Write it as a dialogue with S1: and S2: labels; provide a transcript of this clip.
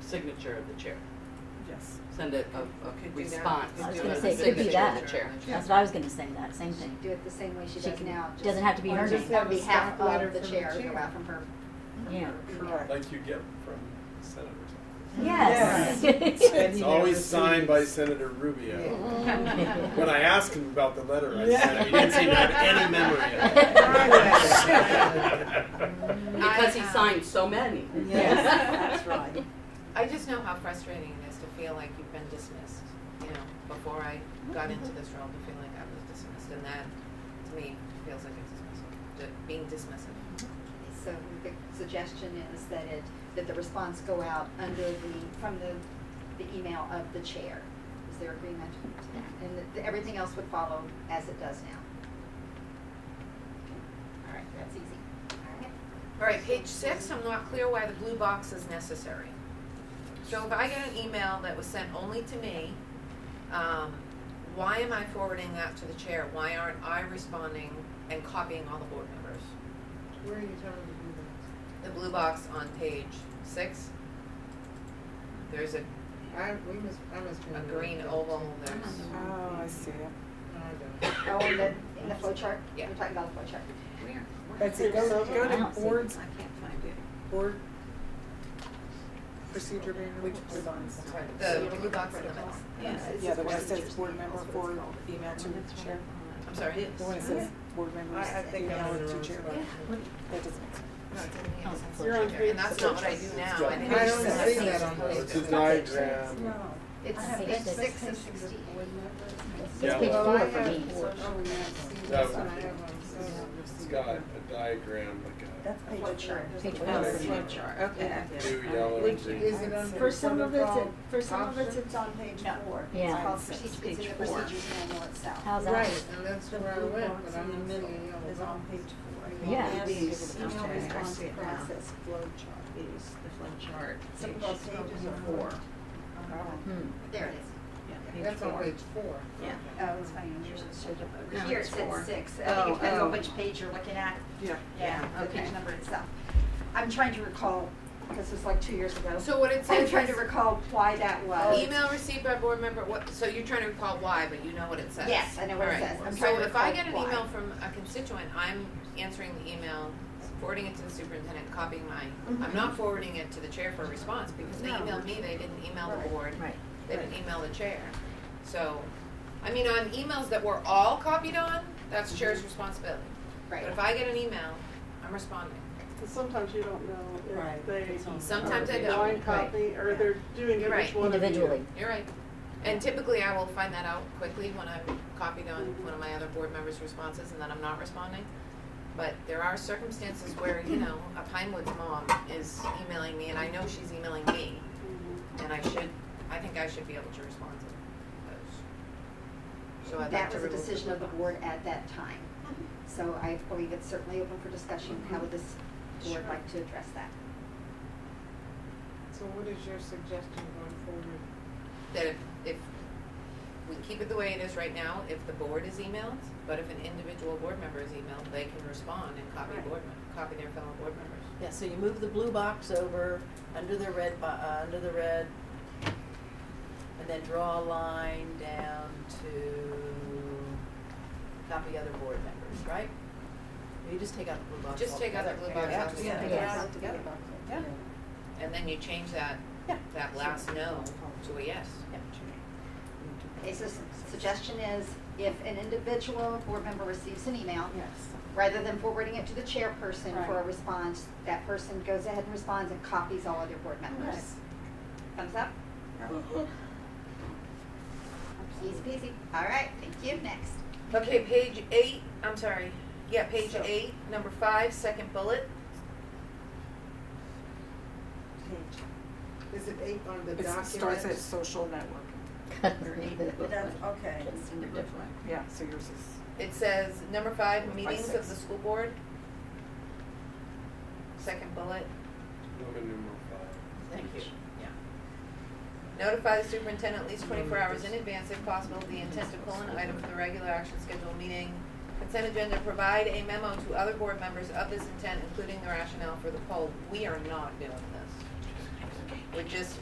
S1: signature of the chair.
S2: Yes.
S1: Send it a,
S2: Oh, Could do
S1: a
S2: that.
S1: response
S2: I was
S1: to
S2: gonna
S1: the
S2: say, it could be
S1: signature of
S2: that.
S1: the chair.
S3: That's what I was gonna say, that same thing.
S4: Do it the same way she
S3: She
S4: does
S3: can-
S4: now. just
S3: doesn't have to be
S4: on
S3: her
S4: just
S3: name.
S4: On behalf
S2: Staff letter
S4: of the
S2: from the
S4: chair,
S2: chair.
S4: or from her. from
S3: Yeah.
S4: her email.
S2: Correct.
S5: Like you get from senators.
S3: Yes.
S2: Yes.
S5: It's
S2: He
S5: always
S2: never
S5: signed by
S2: sees.
S5: Senator Rubio.
S3: Mm.
S5: When I asked him about the letter, I
S2: Yeah.
S5: said, he didn't seem to have any memory of
S2: Right.
S5: it.
S1: Because he signed so many.
S2: um, Yes, that's right.
S6: I just know how frustrating it is to feel like you've been dismissed, you know, before I got into this role, to feel like I was dismissed, and that, to me, feels like a dismissal, d- being dismissive.
S4: So the suggestion is that it, that the response go out under the, from the, the email of the chair. Is there agreement to that? And that everything else would follow as it does now. Okay. All right, that's easy. All right.
S6: All right, page six, I'm not clear why the blue box is necessary. So if I get an email that was sent only to me, um, why am I forwarding that to the chair? Why aren't I responding and copying all the board members?
S7: Where are you telling me to do that?
S6: The blue box on page six, there's a
S7: I, we must, I must be.
S6: a
S2: Mm-hmm.
S6: green oval, there's,
S2: Oh, I see it.
S7: No, I don't.
S4: Oh, in the, in the flow chart?
S6: Yeah.
S4: You're talking about the flow chart. Where?
S2: That's it, go,
S3: So
S2: go
S3: I
S2: to
S3: don't see it.
S2: boards,
S4: I can't find it.
S2: board procedure manual, which is on.
S6: the blue box in the middle.
S2: Yeah, the one that says board member forward email to the chair.
S6: I'm sorry.
S2: The one that says board members
S7: I, I think I'm
S2: email
S7: on the
S2: to
S7: wrong
S2: chair.
S7: spot.
S2: That doesn't make sense.
S6: No, it's
S3: Oh,
S6: in the- it's in
S3: you're
S6: the
S3: on
S6: chair. And that's not what I do now. I think
S7: I
S6: it's
S7: don't
S6: just-
S7: see that on
S5: It's his
S7: Facebook.
S5: diagram.
S4: It's,
S3: Oh, I have six.
S4: it's six and sixty.
S3: It's
S5: Yeah.
S3: page
S7: Well,
S3: four
S7: I
S3: for
S7: have
S3: me.
S7: four. Oh, yeah, see,
S5: That
S7: that's
S5: would
S7: what I
S5: be-
S7: have on social.
S5: It's got a diagram, like
S2: That's
S4: Flow chart.
S3: Page
S5: Oh,
S3: four for
S5: it's
S3: me.
S5: not-
S2: Okay.
S5: a blue, yellow, and
S7: Which,
S5: green.
S7: is it under
S8: For some of it's,
S7: protocol
S8: for some of it's,
S7: option?
S8: it's on page four.
S3: Yeah.
S8: It's called
S4: Proce- It's in
S8: page
S4: the
S8: four.
S4: procedures manual itself.
S3: How's that?
S7: Right, and that's
S8: The
S7: where I
S8: blue
S7: went,
S8: box
S7: but I'm
S8: in the middle
S7: yellow
S8: is on page four.
S3: Yeah.
S8: Yes.
S7: Okay,
S8: Email
S7: I
S8: response
S7: see it now.
S8: process flow chart. Some of those pages are four.
S3: Hmm.
S4: There it is.
S7: That's on page four.
S8: Yeah.
S4: Oh, it's fine. Yours is showed
S8: No,
S4: up. Here it
S8: it's
S4: says
S8: four.
S4: six. I think
S8: Oh,
S4: it depends
S8: oh.
S4: on which page you're looking at.
S2: Yeah.
S4: Yeah, the page number itself. I'm trying to recall, because it was like two years ago.
S6: So what it
S4: I'm
S6: says
S4: trying to
S6: is,
S4: recall why that was.
S6: email received by board member, what, so you're trying to recall why, but you know what it says.
S4: Yes, I know what it
S6: All right.
S4: says. I'm trying to
S6: So if I
S4: recall
S6: get an
S4: why.
S6: email from a constituent, I'm answering the email, forwarding it to the superintendent, copying mine. I'm not forwarding it to the chair for a response, because they
S4: Mm-hmm. No.
S6: emailed me, they didn't email the
S4: Right.
S6: board.
S3: Right.
S6: They didn't email the chair. So, I mean, on emails that we're all copied on, that's chair's responsibility.
S4: Mm-hmm. Right.
S6: But if I get an email, I'm responding.
S9: Because sometimes you don't know
S2: Right.
S9: if they
S6: Sometimes I don't.
S9: blind copy or they're doing
S6: You're
S9: it
S6: right.
S9: each one of you.
S3: Individually.
S6: You're right. And typically, I will find that out quickly when I'm copied on one of my other board members' responses and then I'm not responding. But there are circumstances where, you know, a Pinewood's mom is emailing me and I know she's emailing me. And I should, I think I should be able to respond to those. So I'd like
S4: That
S6: to
S4: was a
S6: remove the
S4: decision of the Mm-hmm.
S6: blue
S4: board at that time. So I believe it's certainly open for discussion. How would this board like to address that?
S7: So what is your suggestion going forward?
S6: box. That if, if we keep it the way it is right now, if the board is emailed, but if an individual board member is emailed, they can respond and copy
S4: Right.
S6: board, mem- copy their fellow board members.
S10: Yeah, so you move the blue box over, under the red, bo- uh, under the red, and then draw a line down to copy other board members, right? Or You just take out the blue box
S6: Just take out the blue
S10: altogether.
S6: box
S10: Yeah,
S6: out.
S10: just
S6: Yeah.
S10: take it
S3: Yes.
S10: out together. Yeah.
S6: And then you change that,
S10: Yeah.
S6: that last no to a yes.
S4: Okay, so s- suggestion is if an individual board member receives an email,
S2: Yes.
S4: rather than forwarding it to the chairperson for a
S2: Right.
S4: response, that person goes ahead and responds and copies all other board members. Thumbs up? Easy peasy. All right, thank you. Next.
S6: Okay, page eight, I'm sorry, yeah, page
S7: So-
S6: eight, number five, second bullet.
S7: Is it eight on the
S2: It
S7: document?
S2: starts at social networking.
S8: That's, okay.
S2: Yeah, so yours is.
S6: It says, number five, meetings of
S2: six.
S6: the school board. Second bullet,
S5: Look at numeral five.
S6: thank you, yeah. Notify the superintendent at least twenty-four hours in advance if possible of the intent to pull an item from the regular action scheduled meeting. Consent agenda, provide a memo to other board members of this intent, including the rationale for the poll. We are not doing this. We're just